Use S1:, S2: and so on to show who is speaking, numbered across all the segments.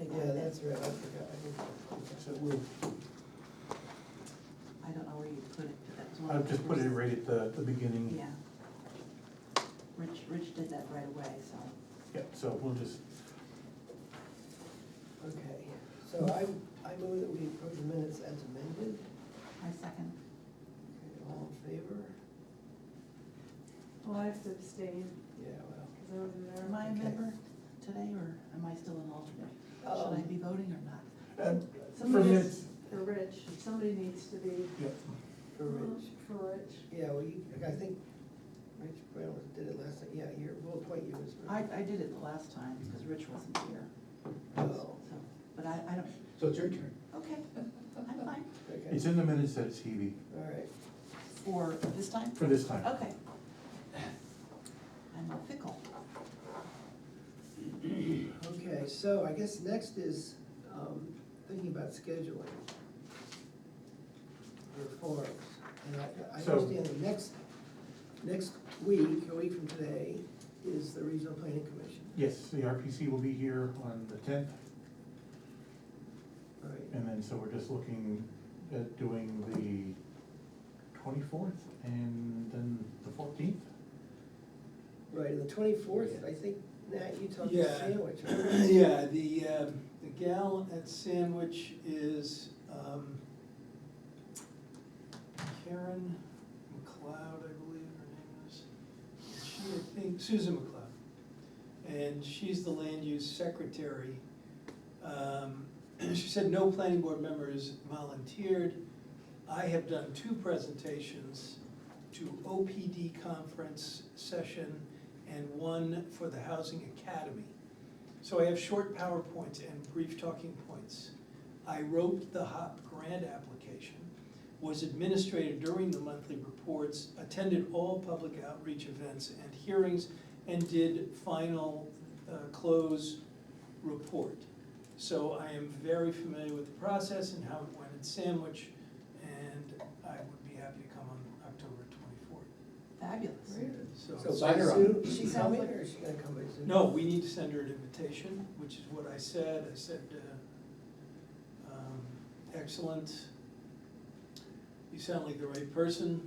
S1: Yeah, that's right, I forgot, I didn't.
S2: So we'll,
S3: I don't know where you put it, but that was one
S2: I'll
S3: of the
S2: just put it
S3: first-
S2: right at the, the beginning.
S3: Yeah. Rich, Rich did that right away, so.
S2: Yeah, so we'll just,
S1: Okay, so I, I move that we approve the minutes as amended.
S3: I second.
S1: Okay, All in favor?
S4: Well, I have to abstain,
S1: Yeah, well.
S4: because I wasn't there.
S3: Am I a
S1: Okay.
S3: member today, or am I still an alternate? Should I
S1: Um,
S3: be voting or not?
S2: um, for
S4: Somebody
S2: minutes,
S4: is, for Rich, somebody needs to be.
S2: yeah,
S1: For Rich,
S4: For Rich.
S1: yeah, well, you, I think Rich Brown did it last, night. yeah, you're, we'll appoint you as. Rich.
S3: I, I did it the last time, because Rich wasn't here,
S1: Oh,
S3: so, but I, I don't,
S5: So it's your turn.
S3: okay, I'm fine.
S1: okay,
S2: it's in the minutes that it's Hebe,
S1: all right.
S3: For this time?
S2: for this time.
S3: Okay. I'm a fickle.
S1: Okay, so I guess next is, um, thinking about scheduling. For forums, and I, I
S2: So-
S1: understand the next, next week, a week from today, is the regional planning commission,
S2: Yes, the RPC will be here on the tenth,
S1: all right?
S2: and then, so we're just looking at doing the twenty-fourth and then the fourteenth.
S1: Right, and the twenty-fourth, I think, Nat, you talked
S6: Yeah.
S1: about sandwich, right?
S6: Yeah, the, uh, the gal at Sandwich is um, Karen McLeod, I believe her name is. She, I think, Susan McLeod. And she's the land use secretary. Um, She said no planning board members volunteered. I have done two presentations to OPD conference session and one for the Housing Academy. So I have short PowerPoints and brief talking points. I wrote the HOP grant application, was administrator during the monthly reports, attended all public outreach events and hearings, and did final uh, close report. So I am very familiar with the process and how it went at Sandwich, and I would be happy to come on October twenty-fourth.
S3: Fabulous.
S1: So
S5: Sign her up.
S1: Sue, is she coming or is she gonna come by Zoom?
S6: No, we need to send her an invitation, which is what I said, I said, uh, um, excellent, you sound like the right person,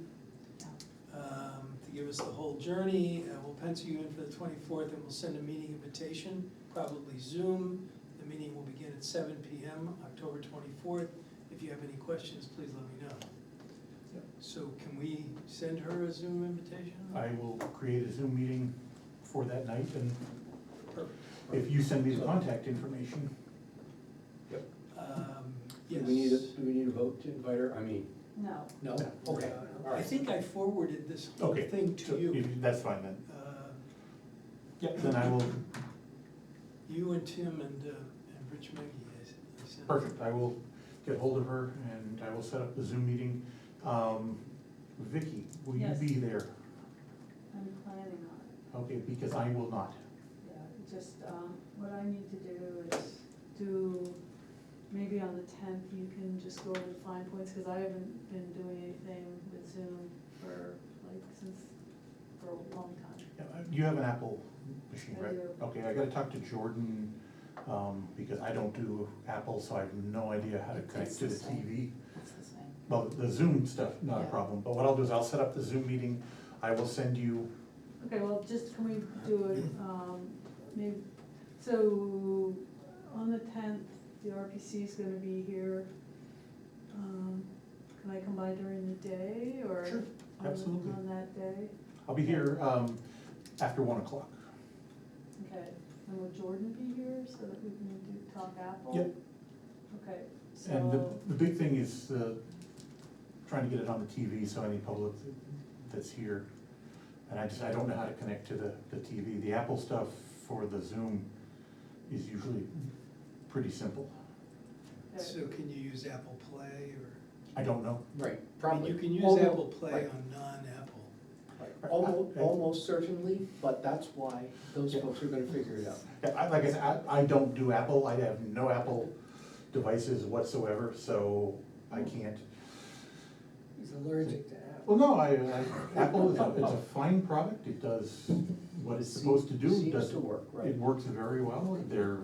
S3: Yeah.
S6: um, to give us the whole journey, and we'll pencil you in for the twenty-fourth, and we'll send a meeting invitation, probably Zoom. The meeting will begin at seven P M, October twenty-fourth, if you have any questions, please let me know.
S2: Yep.
S6: So can we send her a Zoom invitation?
S3: Mm-hmm.
S2: I will create a Zoom meeting for that night, and
S6: Perfect.
S2: if you send me the contact information,
S6: Um,
S5: Do
S6: yes.
S5: we need, a- do we need a vote to invite her? I mean,
S4: No.
S5: no?
S2: No.
S5: Okay, all
S6: I
S5: right.
S6: think I forwarded this whole
S2: Okay,
S6: thing
S2: so
S6: to you.
S2: if- that's fine then.
S6: Uh,
S2: Yeah, then I will,
S6: You and Tim and, uh, and Rich Maggie, I s- I sent.
S2: perfect, I will get hold of her and I will set up the Zoom meeting. Um, Vicky, will you
S4: Yes.
S2: be there?
S4: I'm planning on it.
S2: Okay, because I will not.
S4: Yeah, just, um, what I need to do is do, maybe on the tenth, you can just go over the fine points, because I haven't been doing anything with Zoom for, like, since, for a long time.
S2: Yeah, uh, You have an Apple machine,
S4: I
S2: right?
S4: do.
S2: Okay, I gotta talk to Jordan, um, because I don't do Apple, so I have no idea how to
S3: It's
S2: connect to
S3: the
S2: the
S3: same.
S2: TV.
S3: That's the same.
S2: Well, the Zoom stuff, not a
S3: Yeah.
S2: problem, but what I'll do is I'll set up the Zoom meeting, I will send you,
S4: Okay, well, just can we do it, um, maybe, so, on the tenth, the RPC is gonna be here. Um, can I come by during the day, or?
S2: Sure,
S4: on-
S2: absolutely.
S4: On that day,
S2: I'll be here, um, after one o'clock.
S4: okay, and will Jordan be here, so that we can do talk Apple?
S2: Yep.
S4: Okay, so.
S2: And the, the big thing is, uh, trying to get it on the TV, so any public that's here, and I just, I don't know how to connect to the, the TV. The Apple stuff for the Zoom is usually pretty simple.
S4: okay.
S6: So can you use Apple Play or?
S2: I don't know.
S5: Right,
S6: I mean,
S5: probably.
S6: You can use
S5: Although-
S6: Apple Play
S5: right,
S6: on non-Apple.
S5: right. Almost, almost certainly, but that's why those
S2: Yeah.
S5: folks are gonna figure it out.
S2: Yeah, I, like I said, I, I don't do Apple, I have no Apple devices whatsoever, so I can't.
S1: He's allergic to apples.
S2: Well, no, I, I, Apple is a, it's a fine product, it does what it's supposed to do, it
S5: Seems
S2: does,
S5: to work, right.
S2: it works very well, they're